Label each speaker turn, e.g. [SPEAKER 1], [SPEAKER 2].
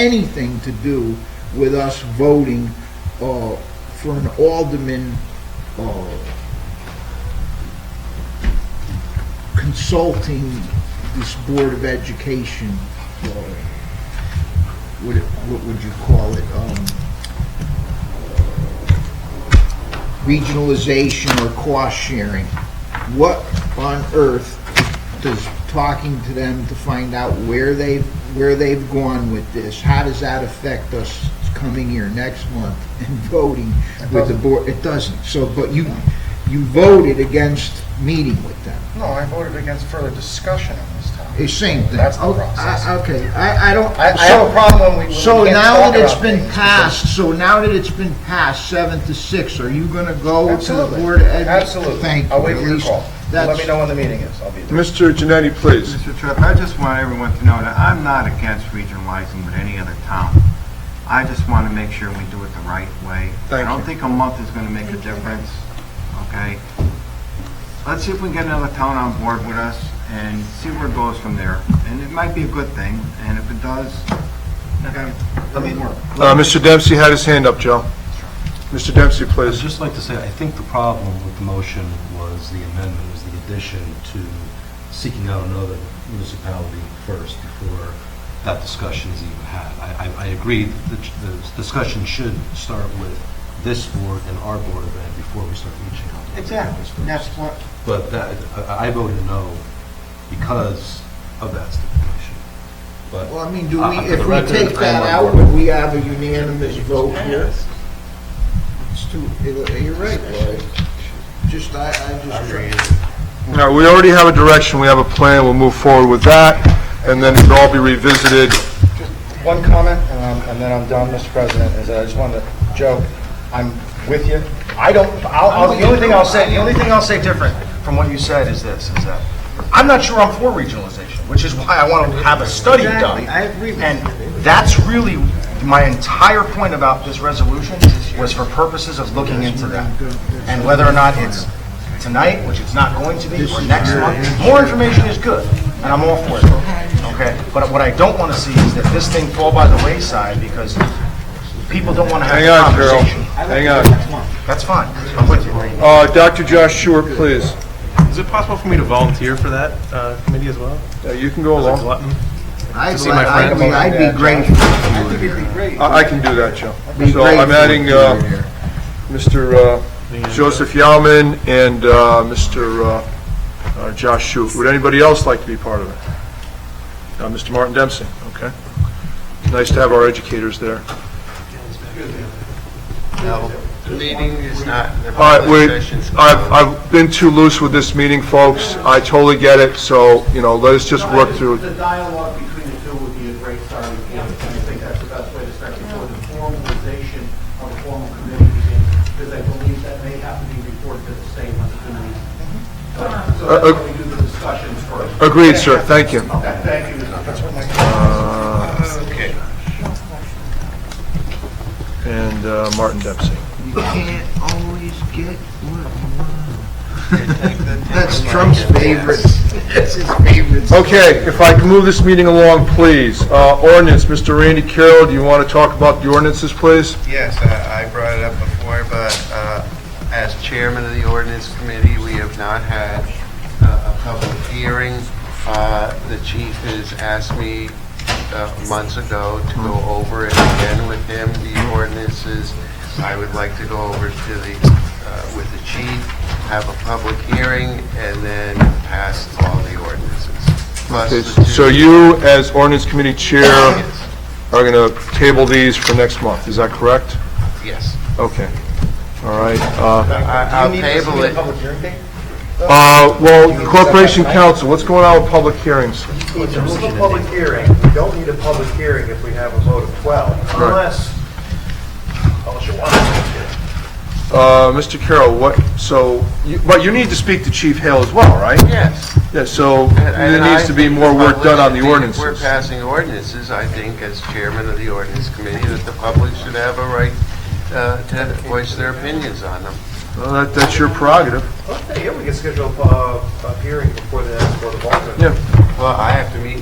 [SPEAKER 1] anything to do with us voting uh, for an alderman uh, consulting this Board of Education, uh, what it- what would you call it? um, regionalization or cost sharing. What on earth does talking to them to find out where they've, where they've gone with this, how does that affect us coming here next month and voting with the board? It doesn't, so, but you, you voted against meeting with them.
[SPEAKER 2] No, I voted against further discussion on this topic.
[SPEAKER 1] It's same thing.
[SPEAKER 2] That's the
[SPEAKER 1] Oh,
[SPEAKER 2] process.
[SPEAKER 1] I- Okay, I, I don't.
[SPEAKER 2] I- I have a problem when we- when we
[SPEAKER 1] So
[SPEAKER 2] can't
[SPEAKER 1] now
[SPEAKER 2] talk
[SPEAKER 1] that it's
[SPEAKER 2] about
[SPEAKER 1] been
[SPEAKER 2] things
[SPEAKER 1] passed, so now that it's been passed, seven to six, are you gonna go to the
[SPEAKER 2] Absolutely,
[SPEAKER 1] Board of Ed?
[SPEAKER 2] absolutely.
[SPEAKER 1] Thank you.
[SPEAKER 2] I'll wait
[SPEAKER 1] at
[SPEAKER 2] for your
[SPEAKER 1] least
[SPEAKER 2] call. Let
[SPEAKER 1] that's-
[SPEAKER 2] me know when the meeting is, I'll be there.
[SPEAKER 3] Mr. Janetti, please.
[SPEAKER 4] Mr. Tripp, I just want everyone to know that I'm not against regionalizing with any other town. I just want to make sure we do it the right way. I
[SPEAKER 3] Thank
[SPEAKER 4] don't
[SPEAKER 3] you.
[SPEAKER 4] think a month is going to make a difference, okay? Let's see if we can get another town on board with us and see where it goes from there. And it might be a good thing, and if it does, okay, let me work.
[SPEAKER 3] Uh, Mr. Dempsey had his hand up, Joe. Mr. Dempsey,
[SPEAKER 5] I'd
[SPEAKER 3] please.
[SPEAKER 5] just like to say, I think the problem with the motion was the amendment, was the addition to seeking out another municipality first before that discussion is even had. I, I- I agree, that the the discussion should start with this board and our board of ed before we start reaching out. to other boards first.
[SPEAKER 4] what.
[SPEAKER 5] But that, I I voted no because of that stipulation. But
[SPEAKER 1] Well, I mean, do
[SPEAKER 5] Uh,
[SPEAKER 1] we,
[SPEAKER 5] for the
[SPEAKER 1] if we
[SPEAKER 5] record,
[SPEAKER 1] take
[SPEAKER 5] I
[SPEAKER 1] that
[SPEAKER 5] am on
[SPEAKER 1] out,
[SPEAKER 5] board.
[SPEAKER 1] would we have a unanimous vote here? It's too, you're right, Lloyd. Just, I, I just.
[SPEAKER 3] Now, we already have a direction, we have a plan, we'll move forward with that, and then it'll all be revisited.
[SPEAKER 2] One comment, um, and then I'm done, Mr. President, is that I just wanted to, Joe, I'm with you. I don't, I'll, I'll- the only thing I'll say, the only thing I'll say different from what you said is this, is that I'm not sure I'm for regionalization, which is why I want to have a study done.
[SPEAKER 1] Exactly, I agree with
[SPEAKER 2] And
[SPEAKER 1] you.
[SPEAKER 2] that's really, my entire point about this resolution was for purposes of looking into that. And whether or not it's tonight, which it's not going to be, or next month, more information is good, and I'm all for it. Okay, but what I don't want to see is that this thing fall by the wayside because people don't want to have
[SPEAKER 3] Hang
[SPEAKER 2] the
[SPEAKER 3] on, Carol,
[SPEAKER 2] conversation.
[SPEAKER 3] hang on.
[SPEAKER 2] That's fine, I'm with you.
[SPEAKER 3] Uh, Dr. Josh Schuer, please.
[SPEAKER 6] Is it possible for me to volunteer for that uh, committee as well?
[SPEAKER 3] Yeah, You can go
[SPEAKER 6] As a
[SPEAKER 3] along.
[SPEAKER 6] glutton?
[SPEAKER 1] I'd
[SPEAKER 6] see my
[SPEAKER 1] like- I
[SPEAKER 6] friends?
[SPEAKER 1] mean, I'd be grateful. I think it'd be great.
[SPEAKER 3] I I can do that, Joe. So I'm adding uh, Mr. uh, Joseph Yalman and uh, Mr. uh, uh, Josh Schuer. Would anybody else like to be part of it? Uh, Mr. Martin Dempsey, okay. Nice to have our educators there.
[SPEAKER 4] Meeting is not, the
[SPEAKER 3] All right, we, I've, I've been too loose with this meeting, folks. I totally get it, so, you know, let us just work through it.
[SPEAKER 7] The dialogue between the two would be a great starting point, and I think that's the best way to start before the formalization of a formal committee begins, because I believe that may have to be reported to the state when the committee. So that's
[SPEAKER 3] Uh,
[SPEAKER 7] why we do the discussions first.
[SPEAKER 3] Agreed, sir, thank you.
[SPEAKER 7] Okay, thank you. Mr. President.
[SPEAKER 3] And uh, Martin Dempsey.
[SPEAKER 1] You can't always get what you want. That's Trump's favorite. That's his favorite.
[SPEAKER 3] Okay, if I can move this meeting along, please. Uh, Ordinance, Mr. Randy Carroll, do you want to talk about the ordinances, please?
[SPEAKER 4] Yes, I I brought it up before, but uh, as chairman of the ordinance committee, we have not had uh, a public hearing. Uh, The chief has asked me uh, months ago to go over it again with him, the ordinances. I would like to go over to the, uh, with the chief, have a public hearing, and then pass all the ordinances. Plus
[SPEAKER 3] Okay,
[SPEAKER 4] the two-
[SPEAKER 3] So you, as ordinance committee chair,
[SPEAKER 4] Yes.
[SPEAKER 3] are going to table these for next month, is that correct?
[SPEAKER 4] Yes.
[SPEAKER 3] Okay, all right. uh,
[SPEAKER 4] I- I'll table it.
[SPEAKER 2] Public hearing date?
[SPEAKER 3] uh, Well, Corporation Council, what's going on with public hearings?
[SPEAKER 7] It's a simple public hearing. We don't need a public hearing if we have a vote of 12,
[SPEAKER 3] Right.
[SPEAKER 7] unless, unless you want a public hearing.
[SPEAKER 3] Uh, Mr. Carroll, what, so, you- but you need to speak to Chief Hale as well, right?
[SPEAKER 4] Yes.
[SPEAKER 3] Yeah, so
[SPEAKER 4] And-
[SPEAKER 3] there
[SPEAKER 4] and I
[SPEAKER 3] needs to be
[SPEAKER 4] think
[SPEAKER 3] more
[SPEAKER 4] the
[SPEAKER 3] work done on
[SPEAKER 4] public-
[SPEAKER 3] the
[SPEAKER 4] If we're
[SPEAKER 3] ordinances.
[SPEAKER 4] passing ordinances, I think as chairman of the ordinance committee, that the public should have a right uh, to voice their opinions on them.
[SPEAKER 3] Well, that- That's your prerogative.
[SPEAKER 7] Okay, yeah, we can schedule a, a hearing before the next board of aldermen.
[SPEAKER 3] Yeah.
[SPEAKER 4] Well, I have to meet